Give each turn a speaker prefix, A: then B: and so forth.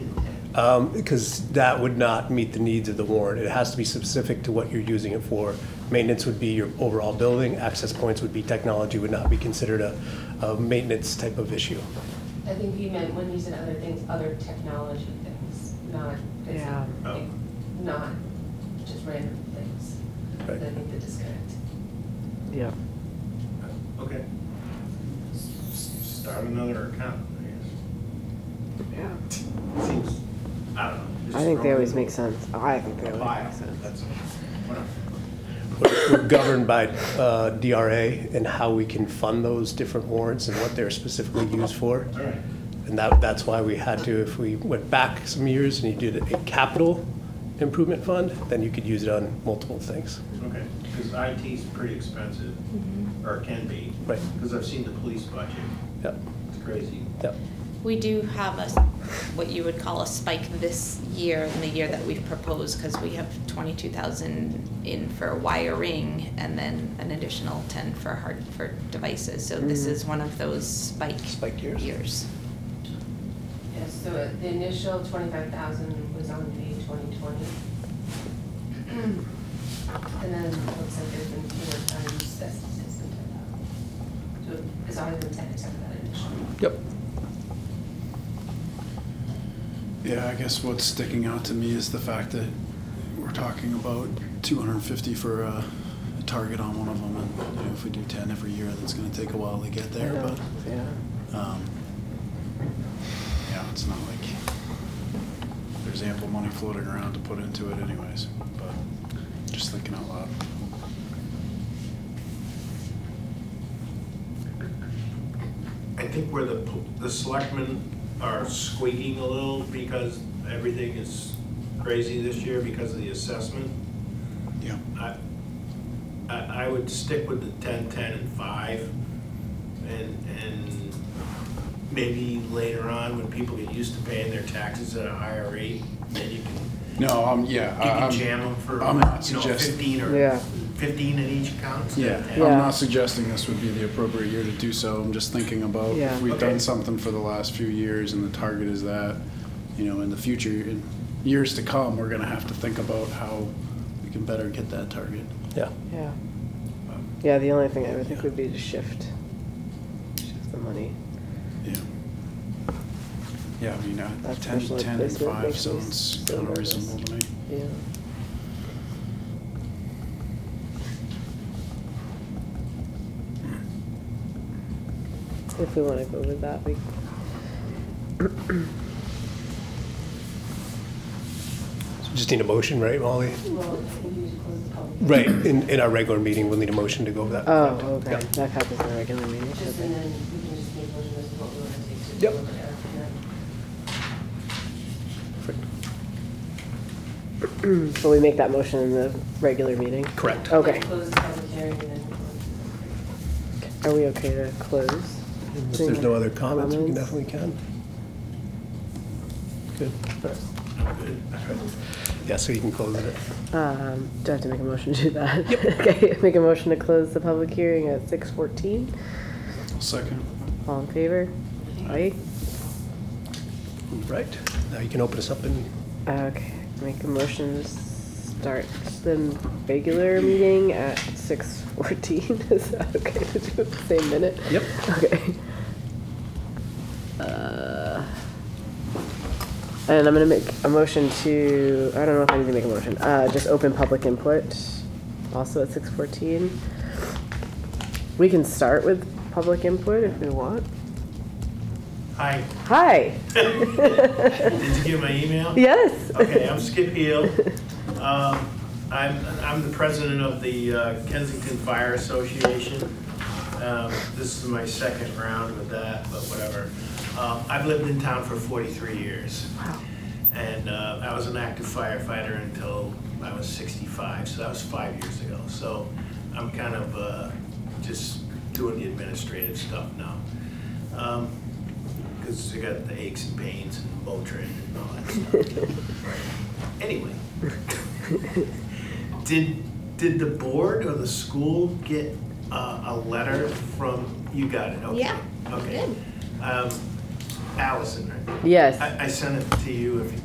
A: Uh,
B: um, because that would not meet the needs of the warrant. It has to be specific to what you're using it for. Maintenance would be your overall building, access points would be technology, would not be considered a, a maintenance type of issue.
C: I think he meant when he said other things, other technology things, not, it's
D: Yeah.
C: like, not just random things. I
B: Right.
C: think the disconnect.
D: Yeah.
A: Okay. S- s- Start another account, I guess. Seems, I don't know. just
D: I think they
A: throw
D: always
A: it
D: make sense. Oh, I think
A: in
D: they
A: a
D: always
A: pile,
D: make sense.
A: That's, whatever.
B: We're we're governed by uh, DRA and how we can fund those different warrants and what they're specifically used for.
A: All right.
B: And that, that's why we had to, if we went back some years and you did a capital improvement fund, then you could use it on multiple things.
A: Okay, because IT's pretty expensive, or can be.
B: Right.
A: Because I've seen the police budget,
B: Yep,
A: it's crazy.
B: yep.
E: We do have a, what you would call a spike this year, in the year that we've proposed, because we have twenty-two thousand in for wiring, and then an additional ten for hard, for devices, so this is one of those spike.
B: Hmm. Spike years.
E: Years.
C: Yeah, so uh, the initial twenty-five thousand was on the twenty twenty. And then it looks like there's been fewer times that's that's been ten thousand. So it's always been ten except for that initial.
B: Yep.
F: Yeah, I guess what's sticking out to me is the fact that we're talking about 250 for uh, a target on one of them, and you know, if we do 10 every year, that's going to take a while to get there.
D: Yeah,
F: But
D: yeah.
F: um, yeah, it's not like there's ample money floating around to put into it, anyways. But just thinking out loud.
A: I think where the, po- the selectmen are squeaking a little because everything is crazy this year because of the assessment.
F: Yeah.
A: I, I, I would stick with the ten, ten, and five, and, and maybe later on, when people get used to paying their taxes at a higher rate, then you can,
F: No, um, yeah.
A: you
F: I-
A: can
F: I'm-
A: jam them for,
F: I'm not
A: you know,
F: suggesting.
A: fifteen
D: Yeah.
A: or, fifteen in each account instead
F: Yeah,
A: of 10.
D: Yeah.
F: I'm not suggesting this would be the appropriate year to do so. I'm just thinking about
D: Yeah.
F: if we've
A: Okay.
F: done something for the last few years and the target is that, you know, in the future, in years to come, we're gonna have to think about how we can better get that target.
B: Yeah.
D: Yeah. Yeah, the only thing I would think would be to shift, shift the money.
F: Yeah. Yeah, I mean, uh,
D: That's
F: ten,
D: special ed
F: ten and
D: placement
F: five
D: makes me
F: sounds
D: so
F: kind of
D: nervous.
F: reasonable to me.
D: Yeah. If we wanna go with that, we,
B: Just need a motion, right, Molly?
C: Well, we need to close the public.
B: Right, in, in our regular meeting, we'll need a motion to go over that.
D: oh, okay, that happens in a regular meeting,
C: Just,
D: okay.
C: and then we can just make motions as to what we want to take to.
B: Yep.
C: deliver it after that.
B: Perfect.
D: So we make that motion in the regular meeting?
B: Correct.
D: Okay,
C: Let's Close the public hearing and then.
D: are we okay to close?
B: If there's no other comments, we can definitely can. Good.
A: I'm good.
B: Yeah, so you can close it.
D: Um, do I have to make a motion to do that? Okay, make a motion to close the public hearing at six fourteen.
F: Second.
D: All in favor? Aye.
B: Right, now you can open us up and
D: Okay, make a motion to start the regular meeting at six fourteen. Is that okay to do at the same minute?
B: Yep.
D: Okay. Uh, And I'm gonna make a motion to, I don't know if I need to make a motion, uh, just open public input, also at six fourteen. We can start with public input if we want.
A: Hi,
D: Hi,
A: did you get my email?
D: yes.
A: Okay, I'm Skip Heel. Um, I'm, I'm the president of the uh, Kensington Fire Association. Um, This is my second round with that, but whatever. Um, I've lived in town for 43 years. And uh, I was an active firefighter until I was 65, so that was five years ago. So I'm kind of uh, just doing the administrative stuff now. Because I got the aches and pains and Motrin and all that stuff. Anyway, did, did the board or the school get a, a letter from, you got it, okay?
E: Yeah,
A: Okay. Um, Allison, right?
D: Yes.
A: I, I sent it to you if you